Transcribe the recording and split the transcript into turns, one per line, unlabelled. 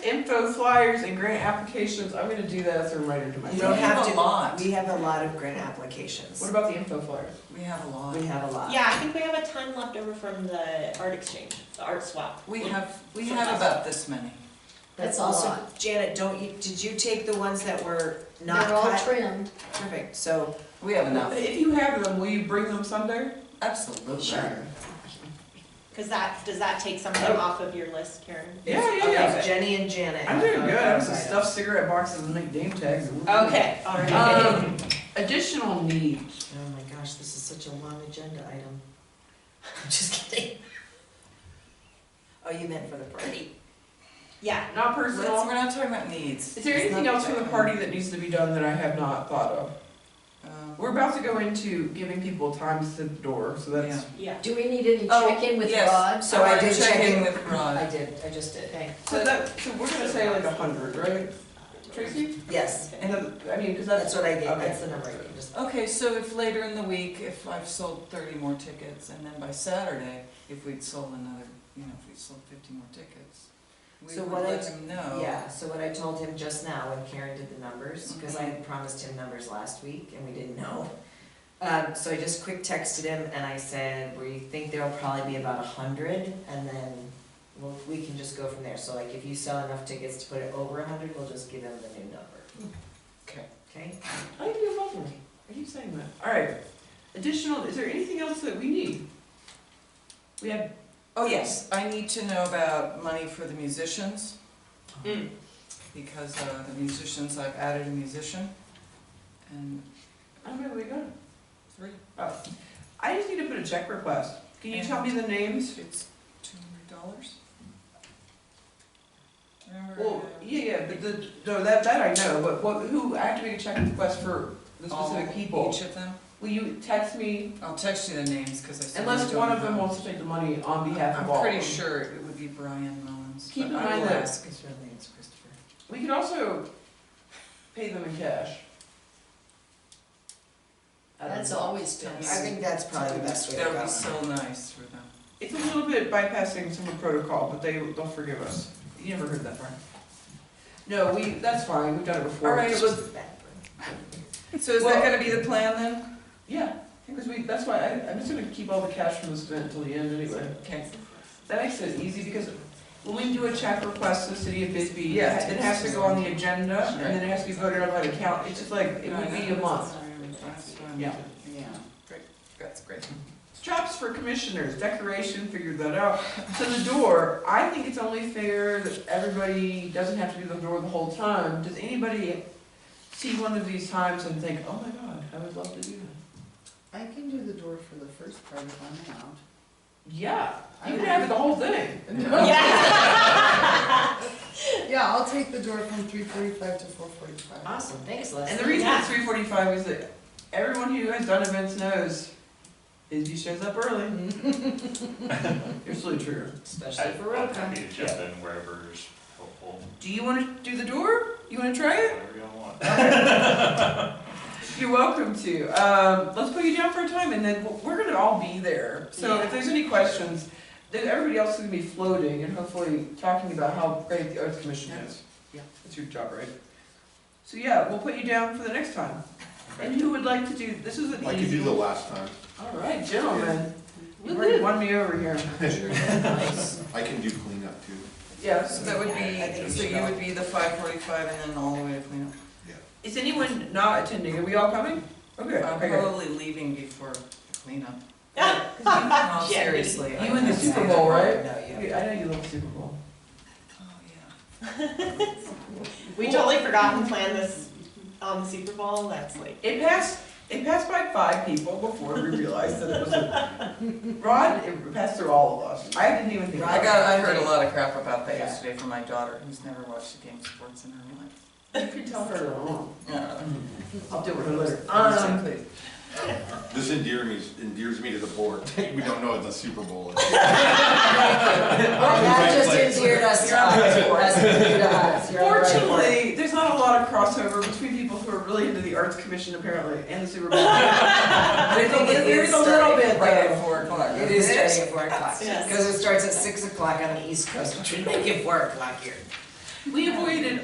info flyers and grant applications, I'm gonna do that as a reminder to
You
myself.
don't
We have
have
a
to-
lot.
We have a lot of grant
What
applications.
about the info flyers?
We have a lot.
We have a lot.
Yeah, I think we have a ton left over from the art exchange, the art swap.
We have, we have about this many.
That's
That's a
also,
lot.
Janet, don't you, did you take the ones that were not
They're all
cut?
trimmed.
Perfect, so,
We have enough,
If you have them, will you bring them Sunday?
absolutely.
Sure.
Cause that, does that take something off of your list, Karen?
Oh. Yeah, yeah,
okay,
yeah.
Jenny and Janet.
I'm doing good, I have some
Right.
stuffed cigarette boxes and make name tags. and we're good.
Okay, alright.
Um, additional needs.
Oh my gosh, this is such a long agenda item. I'm just kidding. Oh, you meant for the party.
Yeah,
Not
Let's-
personal.
We're not talking about needs.
Is there anything else from the party that needs to be done that I have not thought of?
Um,
We're about to go into giving people time to sit at the door, so that's,
yeah.
Do we need any
Oh,
check-in with
yes.
Rod?
So Oh, I did check in
in.
with
I
Rod.
did, I just did.
Okay.
so that, so we're gonna say like a hundred, right? Tracy?
Yes,
And then, I mean, cause
that's
that's,
what I gave,
Okay.
that's the number I gave, just.
Okay, so if later in the week, if I've sold thirty more tickets, and then by Saturday, if we'd sold another, you know, if we'd sold fifty more tickets, we
So
would
what I-
let him know.
Yeah, so what I told him just now when Karen did the numbers, because I had promised him numbers last week and we didn't know. Um, so I just quick texted him and I said, we think there'll probably be about a hundred and then we'll, we can just go from there. So like if you sell enough tickets to put it over a hundred, we'll just give him the new number.
Okay.
Okay?
I think Oh, you're lovely. I keep saying that. Alright, additional, is there anything else that we need? We have,
Oh, yes, I need to know about money for the musicians.
Mm.
Because uh, the musicians, I've added a musician, and
I'm gonna leave it.
three,
Oh, I just need to put a check request. Can you tell me the names?
it's two hundred dollars.
Well,
Remember? uh, I-
yeah, yeah, but the, no, that, that I know, but what, who, I have to make a check request for the
all-
specific people.
Each of them?
Will you text me
I'll text you the names, because I still.
Unless
don't
one of
know.
them wants to take the money on behalf of all
I'm
of them.
pretty sure it would be Brian Mullins,
Keep
but
in
I
mind
will
that-
ask.
His real name is Christopher.
We could also pay them in cash. I don't
That's
know.
always
Tell
been.
me.
I think that's probably the best way to go.
That would be so nice for them.
It's a little bit bypassing some of the protocol, but they, they'll forgive us. You never heard that part. No, we, that's fine, we've done it before.
All right,
It's
well-
just-
So is
Well-
that gonna be the plan then?
Yeah, because we, that's why I, I'm just gonna keep all the cash from this event until the end anyway.
Okay,
That makes it easy because when we do a check request to the city of Bisbee, it
Yeah.
ha- it has to go on the agenda and then it has to be voted on by the count. It's just like, it would be a month.
that's fine.
Yeah.
Yeah, great, that's great.
Straps for commissioners, decoration, figured that out. So the door, I think it's only fair that everybody doesn't have to do the door the whole time. Does anybody see one of these times and think, oh my god, I would love to do that?
I can do the door for the first part if I'm out.
Yeah, you can have the whole thing.
Yeah, I'll take the door from three forty-five to four forty-five.
Awesome, thanks Leslie.
And the reason it's three forty-five is that everyone who has done events knows is he shows up early. You're so true.
Especially for
I'm
road
happy
comp.
to jump in wherever's helpful,
Do you wanna do the door? You wanna try it?
whatever you want.
You're welcome to. Um, let's put you down for a time, and then we'll- we're going to all be there. So if there's any questions, then everybody else is going to be floating and hopefully talking about how great the Arts Commission is.
Yeah.
That's your job, right? So yeah, we'll put you down for the next time. And who would like to do, this is an
I could
easy.
do the last time.
All right, gentlemen. You already won me over here.
I can do cleanup too.
So
Yes.
that would
Yeah, I
be,
think
so
so.
you would be the five forty-five and then all the way to cleanup.
Is anyone not attending? Are we all coming? Okay,
Uh,
I'm
okay.
probably leaving before the cleanup.
Yeah.
No,
Yeah.
seriously. I
You in the
can't
Super
say
Bowl,
that.
right?
No, you-
Yeah, I know you love Super Bowl.
Oh, yeah.
We totally forgot to plan this on the Super Bowl, that's like.
It passed, it passed by five people before we realized that it was a, Rod, it passed through all of us. I didn't even think.
I got, I heard a lot of crap about that
Yeah.
yesterday from my daughter, who's never watched a game of sports in her life.
You can tell her alone.
Yeah.
I'll deal with her later. Um,
Exactly.
This endears me, endears me to the board. We don't know what the Super Bowl is.
Well, that just endeared us to us, that's endeared to us. You're on the right board.
fortunately, there's not a lot of crossover between people who are really into the Arts Commission apparently and the Super Bowl. There's a- There's a little bit
Right
though.
at four o'clock.
It is starting at four o'clock,
Yes.
because it starts at six o'clock on the east coast, which would make it four o'clock here.
Leave